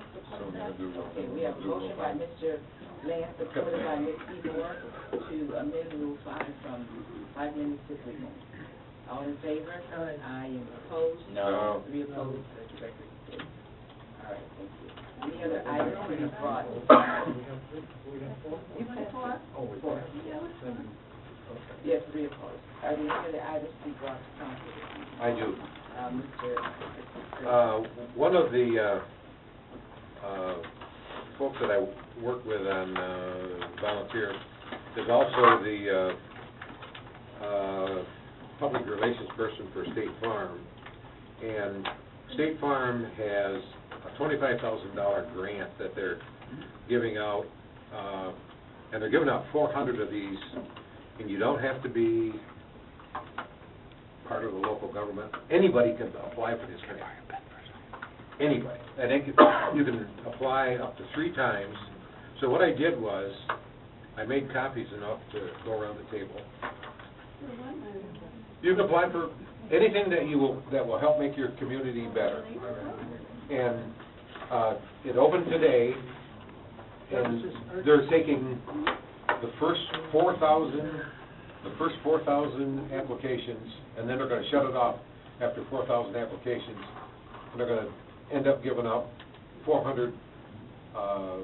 discussion? Okay, we have a motion by Mr. Lance, supported by Ms. Seymour, to amend Rule Five from five minutes to three minutes. All in favor? Aye. and opposed? No. Three opposed, the record is clear. All right, thank you. Any other items to be brought? You put four? Four. Yes, three opposed. Are there any other items to be brought to council? this evening? I do. Uh, Mr. Uh, One of the uh, uh, folks that I work with on uh, volunteer is also the uh, uh, public relations person for State Farm. And State Farm has a $25,000 grant that they're giving out, uh, and they're giving out 400 of these, and you don't have to be part of the local government. Anybody can apply for this grant. Anybody. And it can- you can apply up to three times. So what I did was, I made copies enough to go around the table. You can apply for anything that you will, that will help make your community better. And uh, it opened today, and they're taking the first four thousand the first four thousand applications, and then they're gonna shut it off after four thousand applications, and they're gonna end up giving out four hundred, uh,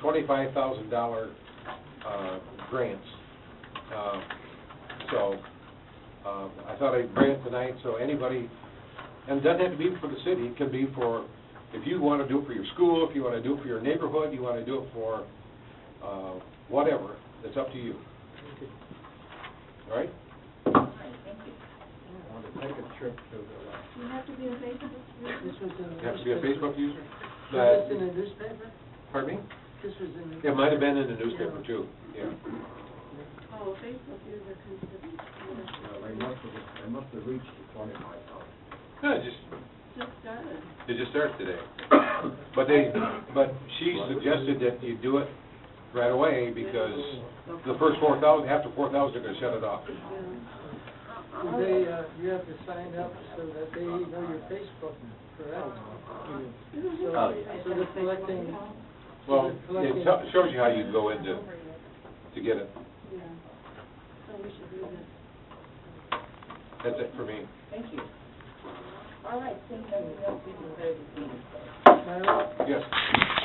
twenty-five thousand dollar, uh, grants. Uh, So, uh, I thought I'd bring it tonight, so anybody, and it doesn't have to be for the city, it can be for, if you wanna do it for your school, if you wanna do it for your neighborhood, you wanna do it for, uh, whatever, it's up to you. All right? You have to be a patient. This was in the You have to be a Facebook user? Was this in the newspaper? Pardon me? This was in the... It might have been in the newspaper too, yeah. Oh, Facebook user considered, They must have, they must have reached the twenty-five thousand. No, it just, just started. it just started today. But they, but she suggested that you do it right away because the first four thousand, after four thousand, they're gonna shut it off. Do They, uh, you have to sign up so that they know your Facebook, correct? Oh, yeah. So they're collecting, Well, it tell- shows you how you go into, to get it. Yeah. So we should do this. That's it for me. Thank you. All right, seeing nothing else, we can close the meeting. now, Yes.